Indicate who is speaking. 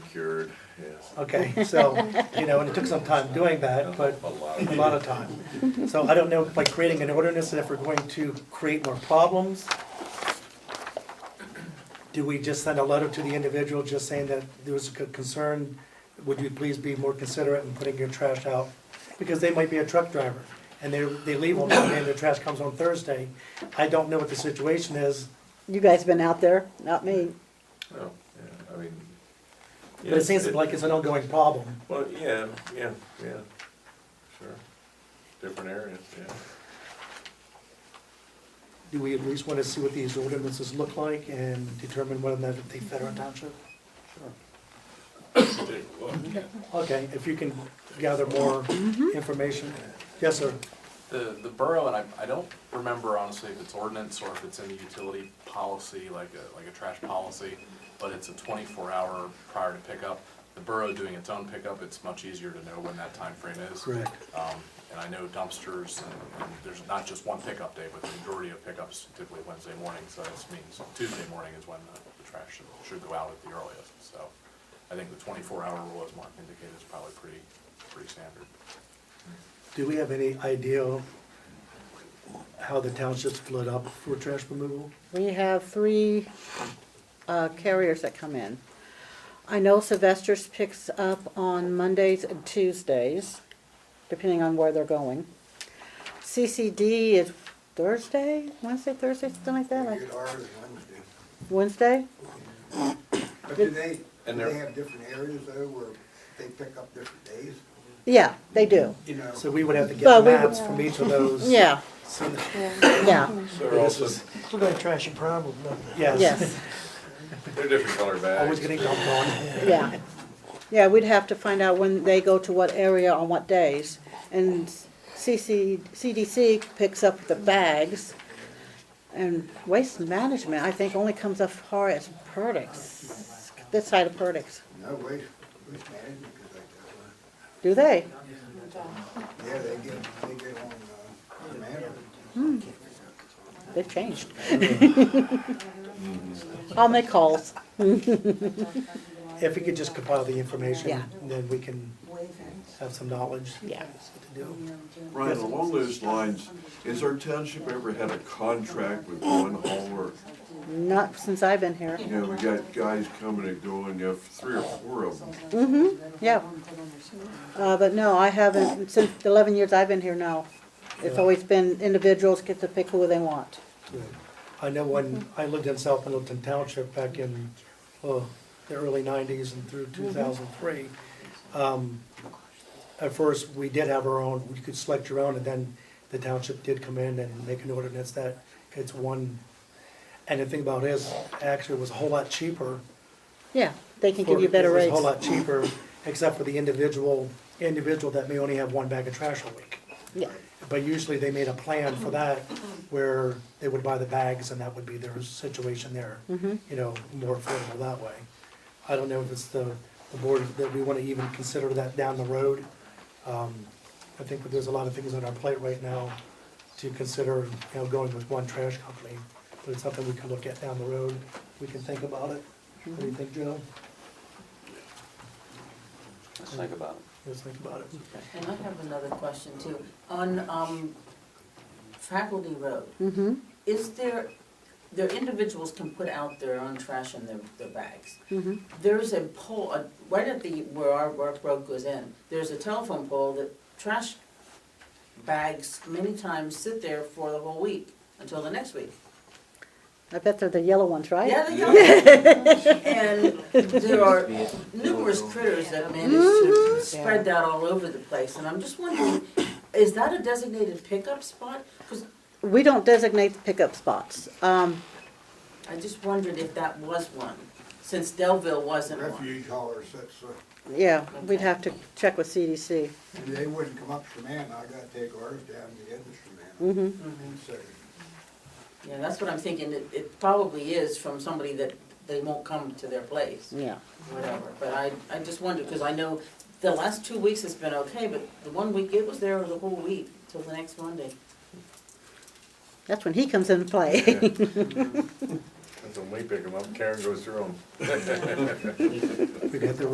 Speaker 1: cured, yes.
Speaker 2: Okay, so, you know, and it took some time doing that, Uh, but
Speaker 1: A lot Oh,
Speaker 2: a lot of time. So I don't know, by creating an ordinance, if we're going to create more problems, do we just send a letter to the individual just saying that there was a c- concern? Would you please be more considerate in putting your trash out? Because they might be a truck driver, and they, they leave on Monday, and their trash comes on Thursday. I don't know what the situation is,
Speaker 3: You guys been out there, not me.
Speaker 1: Oh, yeah, I mean.
Speaker 2: but it
Speaker 1: yes,
Speaker 2: seems like it's an ongoing problem.
Speaker 1: Well, yeah, yeah, yeah, sure. Different areas, yeah.
Speaker 2: Do we at least want to see what these ordinances look like and determine whether or not they fit our township?
Speaker 1: Take a look.
Speaker 2: Okay, if you can gather more
Speaker 3: Mm-hmm.
Speaker 2: information. Yes, sir.
Speaker 4: The, the borough, and I, I don't remember honestly if it's ordinance or if it's in the utility policy, like a, like a trash policy, but it's a twenty-four hour prior to pickup. The borough doing its own pickup, it's much easier to know when that time frame is.
Speaker 2: Correct.
Speaker 4: Um, and I know dumpsters, and and there's not just one pickup day, but the majority of pickups typically Wednesday morning, so this means Tuesday morning is when the the trash should, should go out at the earliest, so. I think the twenty-four hour rule, as Mark indicated, is probably pretty, pretty standard.
Speaker 2: Do we have any idea how the township's split up for trash removal?
Speaker 3: We have three uh, carriers that come in. I know Sylvester's picks up on Mondays and Tuesdays, depending on where they're going. CCD is Thursday, Wednesday, Thursday, something like that, like
Speaker 5: Rated R is
Speaker 3: Wednesday?
Speaker 5: Wednesday. But do they, do
Speaker 1: And they're-
Speaker 5: they have different areas though where they pick up different days?
Speaker 3: Yeah, they do.
Speaker 5: You know,
Speaker 2: So we would have to get
Speaker 3: But we-
Speaker 2: maps from each of those.
Speaker 3: Yeah,
Speaker 2: So that-
Speaker 3: yeah,
Speaker 1: So they're also,
Speaker 6: We're gonna trash your problem, nothing.
Speaker 2: Yes,
Speaker 3: yes,
Speaker 1: they're different color bags.
Speaker 2: always getting dumped on.
Speaker 3: yeah. Yeah, we'd have to find out when they go to what area on what days. And CC, CDC picks up the bags. And waste management, I think, only comes up far as Perdix, this side of Perdix.
Speaker 5: no waste, waste management is like
Speaker 3: Do they?
Speaker 5: that. Yeah, they get, they get on, uh, demand.
Speaker 3: They've changed. I'll make calls.
Speaker 2: If we could just compile the information,
Speaker 3: Yeah.
Speaker 2: then we can have some knowledge.
Speaker 3: Yeah.
Speaker 2: What to do.
Speaker 7: Ryan, along those lines, has our township ever had a contract with one hauler?
Speaker 3: Not since I've been here.
Speaker 7: You know, we got guys coming and going, you have three or four of them.
Speaker 3: Yeah. Uh, but no, I haven't, since the eleven years I've been here, no. It's always been individuals get to pick who they want.
Speaker 2: I know when I lived in South Middleton Township back in, oh, the early nineties and through
Speaker 3: Mm-hmm.
Speaker 2: two thousand three. um, At first, we did have our own, we could select your own, and then the township did come in and make an ordinance that it's one. And the thing about it is, actually, it was a whole lot cheaper.
Speaker 3: Yeah, they can give you
Speaker 2: for-
Speaker 3: better
Speaker 2: It was a whole
Speaker 3: rates.
Speaker 2: lot cheaper, except for the individual, individual that may only have one bag of trash a week.
Speaker 3: Yeah,
Speaker 2: But usually they made a plan for that where they would buy the bags and that would be their situation there. You know, more affordable that way. I don't know if it's the, the board that we want to even consider that down the road. Um, I think that there's a lot of things on our plate right now to consider, you know, going with one trash company. But it's something we can look at down the road. We can think about it. What do you think, Joe?
Speaker 8: Let's think about it.
Speaker 2: Let's think about it.
Speaker 9: And I have another question too. On, um, Faculty Road,
Speaker 3: mm-hmm,
Speaker 9: is there, their individuals can put out their own trash in their, their bags.
Speaker 3: mm-hmm.
Speaker 9: There's a pole, uh, right at the, where our work road goes in, there's a telephone pole that trash bags many times sit there for the whole week, until the next week.
Speaker 3: I bet they're the yellow ones, right?
Speaker 9: Yeah, they are. And there are numerous critters that manage to spread that all over the place, and I'm just wondering, is that a designated pickup spot? Because
Speaker 3: We don't designate the pickup spots. Um,
Speaker 9: I just wondered if that was one, since Delville wasn't one.
Speaker 5: Refuge haulers, that's, uh,
Speaker 3: yeah, we'd have to check with CDC.
Speaker 5: they wouldn't come up Shamana, I gotta take ours down to the end of Shamana.
Speaker 3: Mm-hmm,
Speaker 9: Mhm.
Speaker 5: And so,
Speaker 9: Yeah, that's what I'm thinking, it, it probably is from somebody that they won't come to their place,
Speaker 3: yeah.
Speaker 9: whatever. But I, I just wondered, because I know the last two weeks has been okay, but the one week it was there the whole week till the next Monday.
Speaker 3: That's when he comes into play.
Speaker 1: That's when we pick them up, Karen goes through them.
Speaker 2: We got the